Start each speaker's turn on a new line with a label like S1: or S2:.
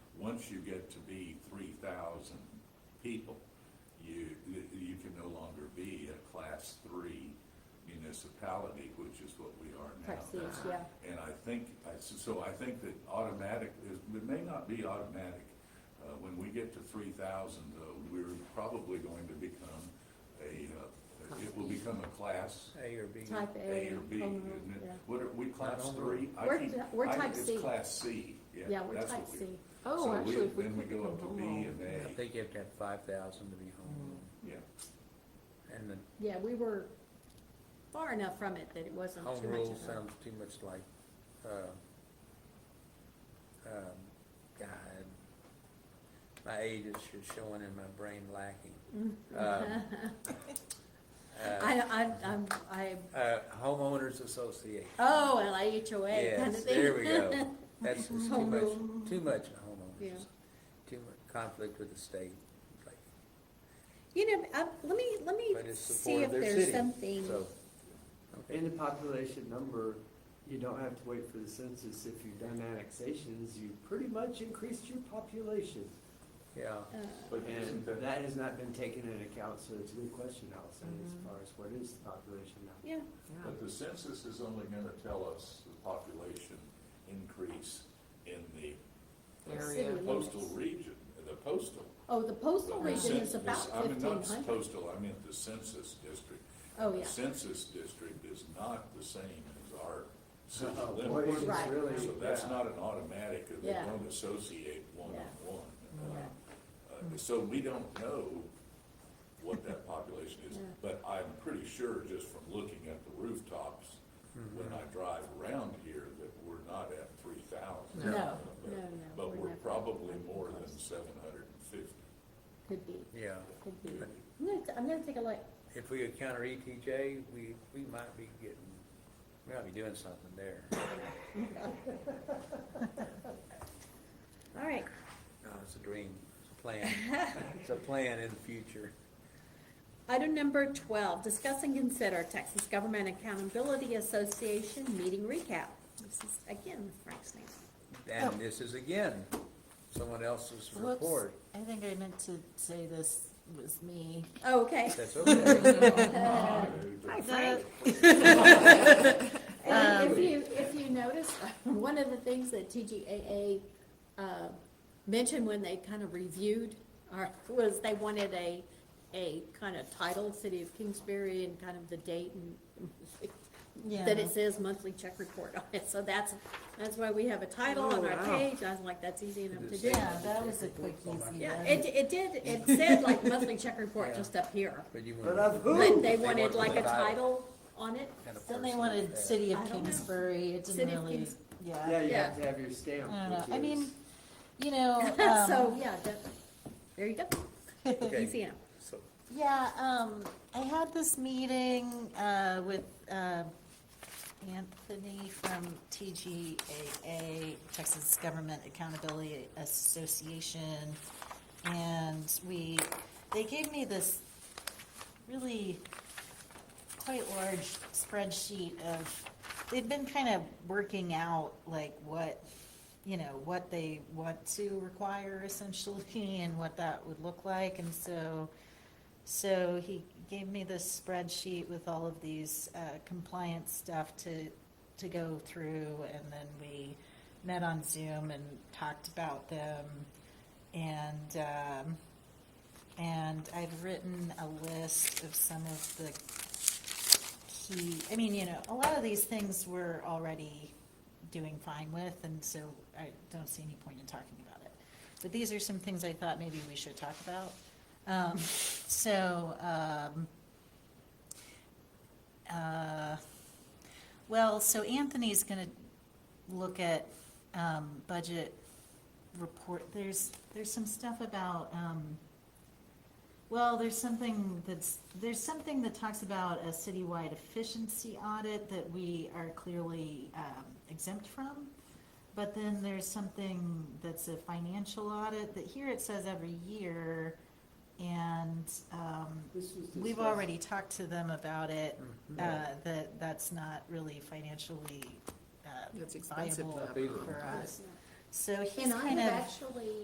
S1: once you get to be three thousand people, you, you can no longer be a class three municipality, which is what we are now.
S2: Perceived, yeah.
S1: And I think, I- so- so I think that automatic, is- it may not be automatic. Uh, When we get to three thousand, though, we're probably going to become a, uh, it will become a class
S3: A or B.
S2: Type
S1: A
S2: A.
S1: or B,
S2: home
S1: isn't it?
S2: rule,
S1: What are, we class
S3: Not home
S1: three? I
S2: We're-
S1: keep-
S2: we're
S1: I-
S2: type C.
S1: It's class C, yeah.
S2: Yeah, yeah, we're
S1: that's
S2: type
S1: what we-
S2: C.
S1: so
S4: Oh,
S1: we-
S4: actually, if we
S1: Then we
S4: click
S1: go
S4: on
S1: up to B
S4: home
S1: and
S3: I
S1: A,
S3: think you have to have five thousand to be home,
S1: yeah.
S2: Mm.
S3: and the
S2: Yeah, we were far enough from it that it wasn't
S3: Home
S2: too much
S3: rule
S2: of a.
S3: sounds too much like, uh, um, God, my age is sh- showing and my brain lacking. Um,
S2: Mm. I, I, I'm, I,
S3: uh, uh, Homeowners Association.
S2: oh, well, HOA kind
S3: Yes,
S2: of thing.
S3: there we go. That's it's too
S2: Home
S3: much,
S2: rule.
S3: too much
S2: Yeah.
S3: homeowners, asso- too much conflict with the state. like,
S2: You know, uh, let me, let me
S3: But it's
S2: see
S3: support
S2: if
S3: of their
S2: there's
S3: city,
S2: something,
S3: so.
S5: And the population number, you don't have to wait for the census. If you've done annexations, you pretty much increased your population.
S3: Yeah,
S2: uh,
S1: But
S5: And that has not been taken into account, so it's a good question, Allison, as
S4: Mhm.
S5: far as what is the population now?
S2: yeah,
S1: But the census is only gonna tell us the population increase in the
S2: City
S4: Area.
S2: limits.
S1: postal region, the postal.
S2: oh, the postal
S1: the
S2: region
S1: cen-
S2: is
S1: the-
S2: about
S1: I mean,
S2: fifteen
S1: not
S2: hundred.
S1: Postal, I meant the census district.
S2: Oh,
S1: The
S2: yeah,
S1: census district is not the same as our city
S5: Oh, boy,
S1: limits.
S5: it's
S2: Right.
S5: really-
S1: So that's
S5: yeah.
S1: not an automatic, or they
S2: Yeah.
S1: don't associate one on one. Uh,
S2: Yeah.
S1: uh, So we don't know what that population is,
S2: Yeah.
S1: but I'm pretty sure just from looking at the rooftops, when I drive around here, that we're not at three thousand.
S2: No. No, no, no,
S1: But
S2: we're
S1: we're
S2: not.
S1: probably more than seven hundred and fifty.
S2: could be,
S3: yeah.
S2: could be. I'm gonna, t- I'm gonna take a look,
S3: If we could counter ETJ, we, we might be getting, we might be doing something there.
S2: all right,
S3: No, Uh, it's a dream, it's a plan, it's a plan in the future.
S2: Item number twelve, discuss and consider Texas Government Accountability Association meeting recap. This is again Frank's name.
S3: And this is again, someone else's
S4: Whoops,
S3: report.
S4: I think I meant to say this was me.
S2: Oh, okay.
S3: That's okay.
S2: Hi, Frank.
S4: Frank.
S2: And if
S5: Um,
S2: you, if you notice, one of the things that TGAA, uh, mentioned when they kind of reviewed, our was they wanted a, a kind of title, City of Kingsbury and kind of the date and that it says monthly check report on it, so that's, that's why we have a title on our
S5: Oh, wow.
S2: page, I was like, that's easy enough to do.
S4: Yeah, that was a quick easy
S2: Yeah,
S4: one.
S2: it, it did, it said like monthly check report
S3: Yeah.
S2: just up here,
S3: But you
S5: But of
S3: want.
S2: but
S5: who?
S2: they
S3: They
S2: wanted
S3: wanted
S2: like a
S3: the title.
S2: title on it,
S3: and a
S4: Then they
S3: person
S4: wanted
S3: there.
S4: City
S2: I
S4: of
S2: don't know.
S4: Kingsbury, it
S2: City of
S4: didn't really,
S2: Kings-
S5: Yeah,
S4: yeah.
S5: you have
S2: Yeah.
S5: to have your
S4: I
S5: stamp,
S4: don't know, I
S5: which
S4: mean,
S5: is-
S4: you know,
S2: so,
S4: um,
S2: yeah, that, there you go.
S3: Okay.
S2: Easy enough,
S3: So,
S4: yeah, um, I had this meeting, uh, with, uh, Anthony from TGAA, Texas Government Accountability Association. And we, they gave me this really quite large spreadsheet of, they've been kind of working out like what, you know, what they want to require essentially and what that would look like. And so, so he gave me this spreadsheet with all of these uh, compliance stuff to, to go through. And then we met on Zoom and talked about them. And, um, and I've written a list of some of the key, I mean, you know, a lot of these things we're already doing fine with, and so I don't see any point in talking about it. But these are some things I thought maybe we should talk about. Um, so, um, uh, well, so Anthony's gonna look at, um, budget report, there's, there's some stuff about, um, well, there's something that's, there's something that talks about a citywide efficiency audit that we are clearly um, exempt from. But then there's something that's a financial audit that here it says every year. And um,
S5: This was
S4: we've
S5: discussed.
S4: already talked to them about it,
S3: hmm.
S4: uh, that that's not really financially uh,
S6: That's expensive,
S4: viable
S6: though.
S4: for us. So he's
S2: And I
S4: kind
S2: have
S4: of,
S2: actually